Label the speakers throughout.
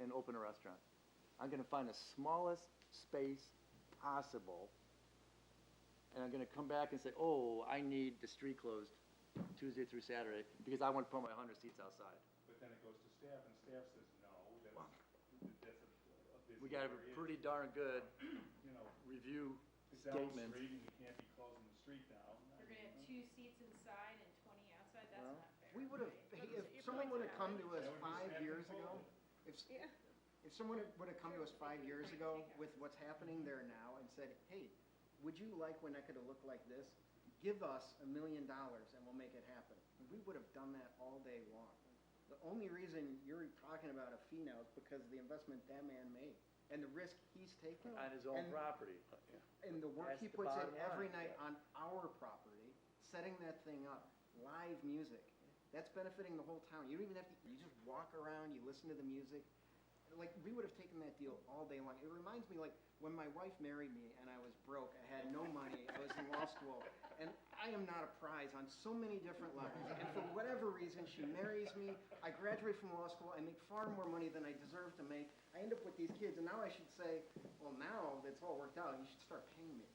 Speaker 1: and open a restaurant. I'm gonna find the smallest space possible, and I'm gonna come back and say, oh, I need the street closed Tuesday through Saturday, because I want to put my hundred seats outside.
Speaker 2: But then it goes to staff, and staff says, no, that's, that's a, a busy
Speaker 1: We got a
Speaker 2: area,
Speaker 1: pretty darn good
Speaker 2: You know,
Speaker 1: review
Speaker 2: it's down the
Speaker 1: statement.
Speaker 2: street, and you can't be closing the street down.
Speaker 3: You're gonna have two seats inside and twenty outside, that's
Speaker 1: Well,
Speaker 3: not fair.
Speaker 4: We would have,
Speaker 3: right?
Speaker 4: if
Speaker 3: Your
Speaker 4: someone
Speaker 3: point's
Speaker 4: would have come
Speaker 3: valid.
Speaker 4: to us
Speaker 2: That would be
Speaker 4: five
Speaker 2: staff
Speaker 4: years
Speaker 2: control.
Speaker 4: ago, if, s-
Speaker 5: Yeah.
Speaker 4: if someone would have come to us five years ago with what's happening there now and said, hey, would you like Winnetka to look like this? Give us a million dollars and we'll make it happen. And We would have done that all day long. The only reason you're talking about a fee now is because of the investment that man made and the risk he's taken
Speaker 1: On his own
Speaker 4: And-
Speaker 1: property.
Speaker 4: and the work
Speaker 1: That's
Speaker 4: he
Speaker 1: the
Speaker 4: puts in
Speaker 1: bottom
Speaker 4: every
Speaker 1: line,
Speaker 4: night on our property, setting that thing up, live music, that's benefiting the whole town. You don't even have to, you just walk around, you listen to the music. Like, we would have taken that deal all day long. It reminds me, like, when my wife married me and I was broke, I had no money, I was in law school, and I am not a prize on so many different levels. And for whatever reason, she marries me, I graduate from law school, I make far more money than I deserve to make, I end up with these kids, and now I should say, well, now that's all worked out, you should start paying me.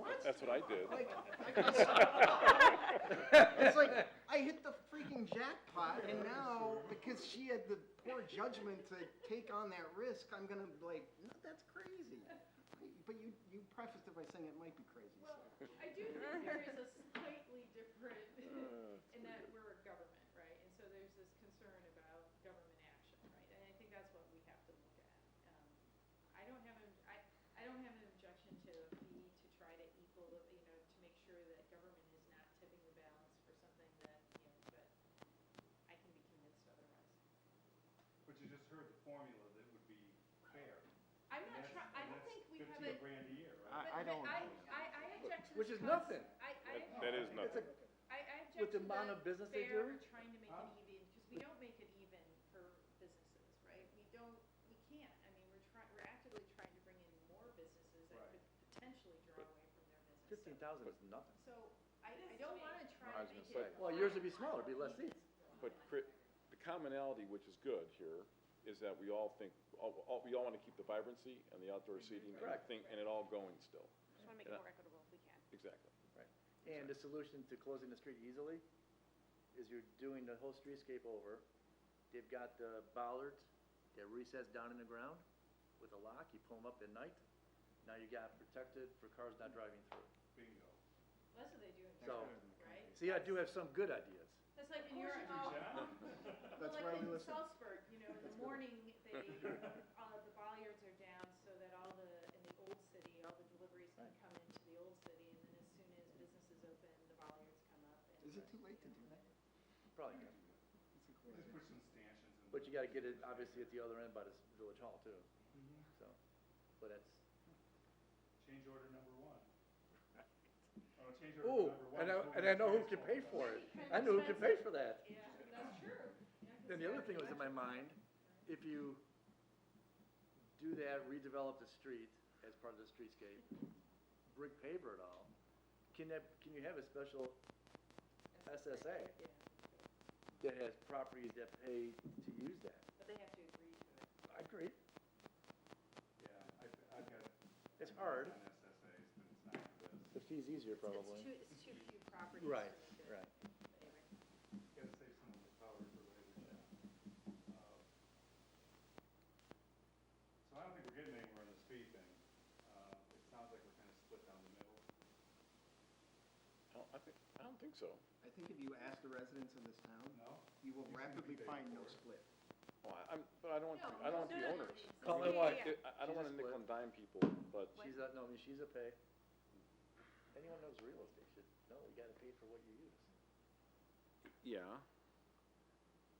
Speaker 4: What?
Speaker 6: That's what I did.
Speaker 4: Like, like, it's like I hit the freaking jackpot, and now because she had the poor judgment to take on that risk, I'm gonna be like, no, that's crazy. But you you prefaced it by saying it might be crazy.
Speaker 3: Well, I do think there is a slightly different, in that we're a government, right? And so there's this concern about government action, right? And I think that's what we have to look at. Um, I don't have, an I, I don't have an objection to a fee to try to equal, the- you know, to make sure that government is not tipping the balance for something that, you know, but I can be convinced otherwise.
Speaker 2: But you just heard the formula that would be fair.
Speaker 3: I'm
Speaker 2: and
Speaker 3: not
Speaker 2: that's-
Speaker 3: try, I
Speaker 2: and
Speaker 3: don't
Speaker 2: that's
Speaker 3: think we have a
Speaker 2: Fifteen grand a year,
Speaker 1: I-
Speaker 2: right?
Speaker 3: But- but
Speaker 1: don't-
Speaker 3: I, I, I object to this.
Speaker 1: Which is
Speaker 3: cons-
Speaker 1: nothing.
Speaker 3: I, I,
Speaker 6: That- That is
Speaker 1: It's
Speaker 6: nothing.
Speaker 1: like-
Speaker 3: I, I object to
Speaker 1: With the amount of business they
Speaker 3: fair
Speaker 1: do?
Speaker 3: trying to make
Speaker 2: Huh?
Speaker 3: it even, because we don't make it even for businesses, right? We don't, we can't, I mean, we're trying, we're actively trying to bring in more businesses that
Speaker 2: Right.
Speaker 3: could potentially draw away from their
Speaker 1: Fifteen
Speaker 3: business.
Speaker 1: thousand is nothing.
Speaker 3: So, so I,
Speaker 5: It
Speaker 3: I
Speaker 5: is to
Speaker 3: don't
Speaker 5: me.
Speaker 3: wanna
Speaker 6: I
Speaker 3: try
Speaker 6: was
Speaker 3: to
Speaker 6: gonna
Speaker 3: make
Speaker 6: say.
Speaker 3: it.
Speaker 1: Well, yours would be smaller, it'd be less seats.
Speaker 6: But cri- the commonality, which is good here, is that we all think, all, all- we all want to keep the vibrancy and the outdoor seating and the
Speaker 1: Correct.
Speaker 6: thing, and it all going still.
Speaker 5: Just wanna make it
Speaker 6: Yeah.
Speaker 5: more equitable if we can.
Speaker 6: Exactly.
Speaker 1: And the solution to closing the street easily is you're doing the whole streetscape over. They've got the bollards that recess down in the ground with a lock, you pull them up at night. Now you got protected for cars not driving through.
Speaker 2: Bingo.
Speaker 3: That's what they do in
Speaker 1: So-
Speaker 3: Europe, right?
Speaker 1: See, I do have some good ideas.
Speaker 3: That's like in
Speaker 5: course
Speaker 3: Europe,
Speaker 5: you do,
Speaker 3: oh,
Speaker 2: John?
Speaker 4: That's
Speaker 3: Well, like
Speaker 4: why we
Speaker 3: in
Speaker 4: listen.
Speaker 3: Salzburg, you know, in the morning, they, all of the bollards are down so that all the, in the old city, all the deliveries can come into the old city, and then as soon as business is open, the bollards come up and.
Speaker 4: Is it too late to do that?
Speaker 1: Probably good.
Speaker 4: It's a
Speaker 2: Just
Speaker 4: cool
Speaker 2: put some stanchions in.
Speaker 1: But you gotta get it, obviously, at the other end by the s- village hall too,
Speaker 4: idea.
Speaker 1: so. But that's,
Speaker 2: Change order number one. Oh, change
Speaker 1: ooh,
Speaker 2: order number one.
Speaker 1: and I,
Speaker 2: is what
Speaker 1: and
Speaker 2: we
Speaker 1: I know who can pay
Speaker 2: transformed from-
Speaker 1: for it. I know who can pay for that.
Speaker 3: Yeah, that's true. Yeah, 'cause
Speaker 1: Then the other thing that was in my
Speaker 3: it's
Speaker 1: mind, if you do that, redevelop the street as part of the streetscape, brick paver it all, can that, can you have a special SSA
Speaker 3: got- Yeah,
Speaker 1: that has properties that pay to use that?
Speaker 3: but they have to agree to it.
Speaker 1: I agree,
Speaker 2: Yeah, I've, I've got.
Speaker 1: it's hard,
Speaker 2: On SSAs, but it's not for this.
Speaker 1: the fee's easier
Speaker 5: It's-
Speaker 1: probably.
Speaker 5: It's too, it's too few properties. to
Speaker 1: Right,
Speaker 5: make it-
Speaker 1: right.
Speaker 5: anyway.
Speaker 2: Gotta save some of the power for later, yeah. Uh, So I don't think we're getting anywhere on the speed thing. Uh, it sounds like we're kind of split down the middle.
Speaker 6: I don't, I think, I don't think so.
Speaker 4: I think if you ask the residents of this town,
Speaker 2: No?
Speaker 4: you will
Speaker 2: You can
Speaker 4: rapidly
Speaker 2: debate
Speaker 4: find no
Speaker 2: for it.
Speaker 4: split.
Speaker 6: Well, I- I'm, but I don't want,
Speaker 3: No,
Speaker 6: I don't want
Speaker 3: no,
Speaker 6: the
Speaker 3: no, no,
Speaker 6: owners.
Speaker 3: it's-
Speaker 1: Call it
Speaker 5: Yeah,
Speaker 1: what?
Speaker 5: yeah, yeah.
Speaker 6: I- I don't
Speaker 1: She's
Speaker 6: want
Speaker 1: a
Speaker 6: to nickel
Speaker 1: split.
Speaker 6: and dime people, but
Speaker 1: She's a, no, I mean, she's a pay. Anyone knows real estate should know, you gotta pay for what you use.
Speaker 6: Yeah.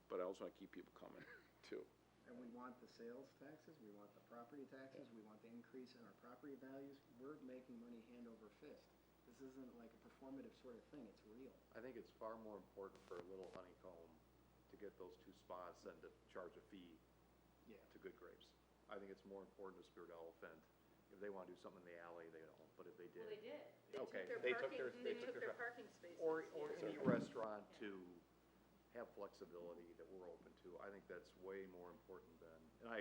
Speaker 6: But I also want to keep people coming, too.
Speaker 4: And we want the sales taxes, we want the property taxes, we want the increase in our property values. We're making money hand over fist. This isn't like a performative sort of thing, it's real.
Speaker 7: I think it's far more important for a little honeycomb to get those two spots than to charge a fee
Speaker 4: Yeah.
Speaker 7: to Good Grapes. I think it's more important to Spirit Elephant. If they wanna do something in the alley, they don't, but if they
Speaker 3: Well, they
Speaker 7: did.
Speaker 3: did.
Speaker 5: They took
Speaker 7: Okay,
Speaker 5: their
Speaker 7: they took
Speaker 5: parking-
Speaker 7: their- they took their-
Speaker 5: parking spaces.
Speaker 7: Or, or
Speaker 5: yeah.
Speaker 7: any restaurant to have flexibility that we're open to, I think that's way more important than